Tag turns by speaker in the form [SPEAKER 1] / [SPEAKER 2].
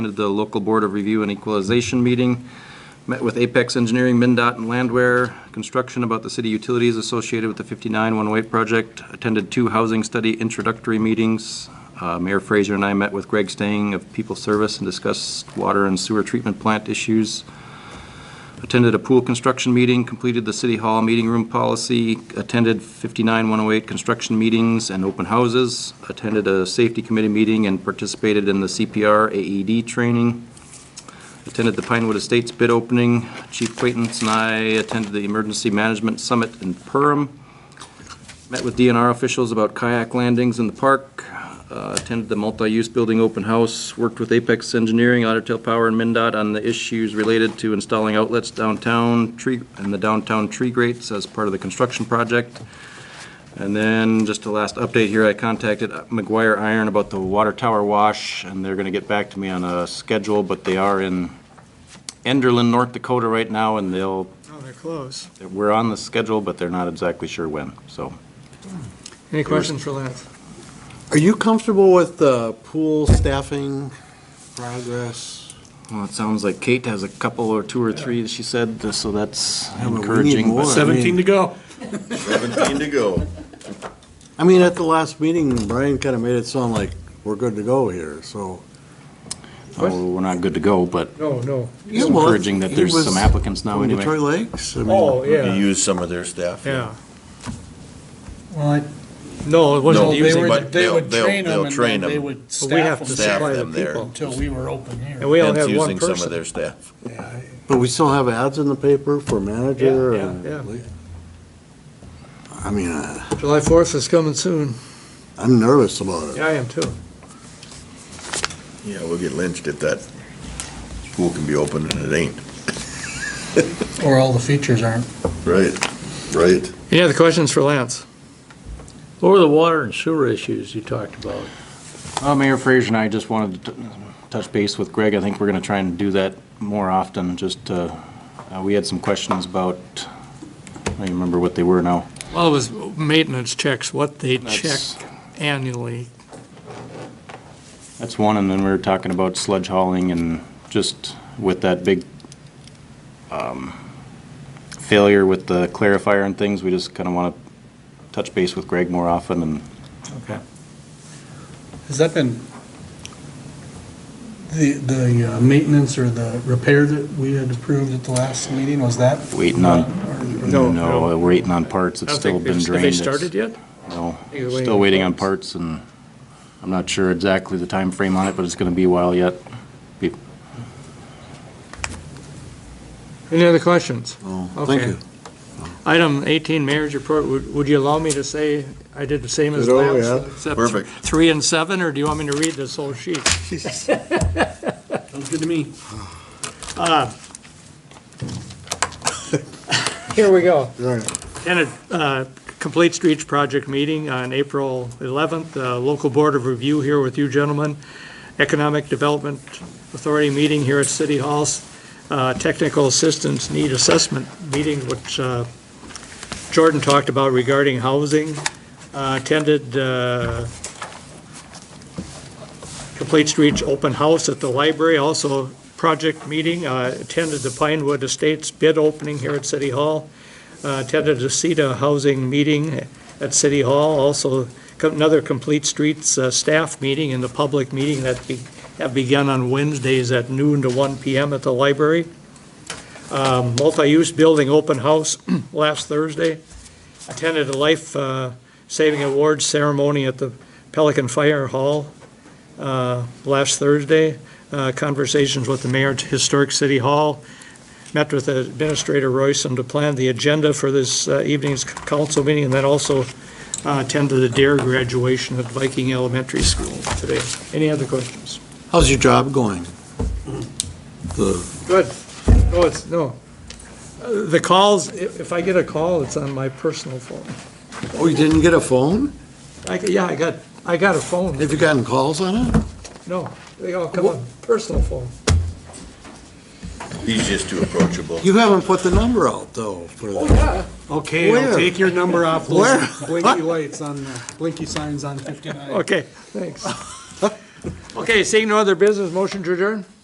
[SPEAKER 1] attended the local Board of Review and Equalization meeting, met with Apex Engineering, MinDOT, and Landwear Construction about the city utilities associated with the 59108 project, attended two housing study introductory meetings. Uh, Mayor Fraser and I met with Greg Stang of People Service and discussed water and sewer treatment plant issues attended a pool construction meeting, completed the city hall meeting room policy, attended 59108 construction meetings and open houses, attended a safety committee meeting and participated in the CPR AED E training, attended the Pinewood Estates bid opening. Chief Quaintance and I attended the Emergency Management Summit in Perham, met with DNR officials about kayak landings in the park, uh, attended the multi-use building open house, worked with Apex Engineering, Otter Tail Power, and MinDOT on the issues related to installing outlets downtown, tree, and the downtown tree grates as part of the construction project. And then, just a last update here, I contacted McGuire Iron about the water tower wash, and they're gonna get back to me on a schedule, but they are in Enderlin, North Dakota right now, and they'll,
[SPEAKER 2] Oh, they're close.
[SPEAKER 1] we're on the schedule, but they're not exactly sure when, so.
[SPEAKER 2] Any questions for Lance?
[SPEAKER 3] Are you comfortable with the pool staffing progress?
[SPEAKER 1] Well, it sounds like Kate has a couple or two or three, she said, uh, so that's
[SPEAKER 3] but we need
[SPEAKER 1] encouraging.
[SPEAKER 3] more.
[SPEAKER 1] but-
[SPEAKER 4] 17 to go.
[SPEAKER 5] 17 to go.
[SPEAKER 3] I mean, at the last meeting, Brian kind of made it sound like we're good to go here, so.
[SPEAKER 1] Oh, we're not good to go, but
[SPEAKER 2] No, no.
[SPEAKER 1] it's encouraging that there's some applicants now
[SPEAKER 3] From Detroit
[SPEAKER 1] anyway.
[SPEAKER 3] Lakes? I mean,
[SPEAKER 2] Oh,
[SPEAKER 5] You
[SPEAKER 2] yeah,
[SPEAKER 5] use some of their staff.
[SPEAKER 2] yeah. No, it
[SPEAKER 5] No,
[SPEAKER 2] wasn't,
[SPEAKER 5] they
[SPEAKER 6] They
[SPEAKER 5] were-
[SPEAKER 6] were,
[SPEAKER 5] but
[SPEAKER 6] they
[SPEAKER 5] they'll-
[SPEAKER 6] would
[SPEAKER 5] they'll-
[SPEAKER 6] train
[SPEAKER 5] they'll
[SPEAKER 6] them and
[SPEAKER 5] train
[SPEAKER 6] then they
[SPEAKER 5] them.
[SPEAKER 6] would
[SPEAKER 2] but we have
[SPEAKER 6] staff
[SPEAKER 2] to
[SPEAKER 5] Staff
[SPEAKER 2] supply the
[SPEAKER 5] them there.
[SPEAKER 2] people.
[SPEAKER 6] until we were open
[SPEAKER 2] And
[SPEAKER 6] here.
[SPEAKER 2] we only
[SPEAKER 5] Hence
[SPEAKER 2] had one
[SPEAKER 5] using some of
[SPEAKER 2] person.
[SPEAKER 5] their staff.
[SPEAKER 3] But we still have ads in the paper for manager
[SPEAKER 6] Yeah,
[SPEAKER 3] and.
[SPEAKER 2] yeah,
[SPEAKER 3] I mean, uh,
[SPEAKER 2] July 4th is coming soon.
[SPEAKER 3] I'm nervous about it.
[SPEAKER 2] Yeah, I am too.
[SPEAKER 5] Yeah, we'll get lynched if that school can be open and it ain't.
[SPEAKER 6] Or all the features aren't.
[SPEAKER 5] Right, right.
[SPEAKER 2] Any other questions for Lance?
[SPEAKER 4] What were the water and sewer issues you talked about?
[SPEAKER 1] Uh, Mayor Fraser and I just wanted to t- touch base with Greg. I think we're gonna try and do that more often, just, uh, uh, we had some questions about, I don't even remember what they were now.
[SPEAKER 2] Well, it was maintenance checks, what they
[SPEAKER 1] That's-
[SPEAKER 2] check annually.
[SPEAKER 1] That's one, and then we were talking about sledge hauling and just with that big um, failure with the clarifier and things, we just kind of want to touch base with Greg more often and
[SPEAKER 6] Has that been, the, the uh, maintenance or the repair that we had approved at the last meeting, was that?
[SPEAKER 1] waiting on,
[SPEAKER 6] Or-
[SPEAKER 2] No,
[SPEAKER 1] no, we're waiting on parts, it's still been drained.
[SPEAKER 4] Have they
[SPEAKER 1] It's-
[SPEAKER 4] started yet?
[SPEAKER 1] No,
[SPEAKER 2] You're waiting
[SPEAKER 1] still
[SPEAKER 2] on
[SPEAKER 1] waiting on
[SPEAKER 2] parts.
[SPEAKER 1] parts, and I'm not sure exactly the time frame on it, but it's going to be a while yet.
[SPEAKER 2] Any other questions?
[SPEAKER 3] Oh, Thank
[SPEAKER 2] Okay.
[SPEAKER 3] you.
[SPEAKER 2] Item 18, marriage report, would would you allow me to say I did the same as
[SPEAKER 3] Did all,
[SPEAKER 2] Lance?
[SPEAKER 3] Oh, yeah.
[SPEAKER 2] except
[SPEAKER 5] Perfect.
[SPEAKER 2] Three and seven, or do you want me to read this whole sheet?
[SPEAKER 6] Sounds good to me.
[SPEAKER 2] Uh, Here we go.
[SPEAKER 3] All right.
[SPEAKER 2] And uh, a Complete Streets Project meeting on April 11th. Uh, Local Board of Review here with you gentlemen. Economic Development Authority meeting here at City Hall. Uh, Technical Assistance Need Assessment meeting, which uh, Jordan talked about regarding housing. Uh, Attended uh, Complete Streets Open House at the library, also project meeting. Uh, Attended the Pinewood Estates bid opening here at City Hall uh, attended a CETA housing meeting at City Hall, also co- another Complete Streets uh, staff meeting and the public meeting that be- have begun on Wednesdays at noon to 1 PM at the library. Um, Multi-use building open house last Thursday. Attended a life uh, saving awards ceremony at the Pelican Fire Hall uh, last Thursday. Uh, Conversations with the mayor at Historic City Hall met with Administrator Royson to plan the agenda for this uh, evening's council meeting, and then also uh, attended the DARE graduation at Viking Elementary School today. Any other questions?
[SPEAKER 3] How's your job going? The
[SPEAKER 2] Good. No, it's, no. Uh, The calls, i- if I get a call, it's on my personal phone.
[SPEAKER 3] Oh, you didn't get a phone?
[SPEAKER 2] I, g- yeah, I got, I got a phone.
[SPEAKER 3] Have you gotten calls on it?
[SPEAKER 2] No, they all come on personal phone.
[SPEAKER 5] He's just too approachable.
[SPEAKER 3] You haven't put the number out, though, for the.
[SPEAKER 6] Okay,
[SPEAKER 3] Where?
[SPEAKER 6] I'll take your number off
[SPEAKER 3] Where?
[SPEAKER 6] those blinky lights on, the- blinky signs on 59.
[SPEAKER 2] Okay, thanks. Okay, seeing no other business, motion to adjourn?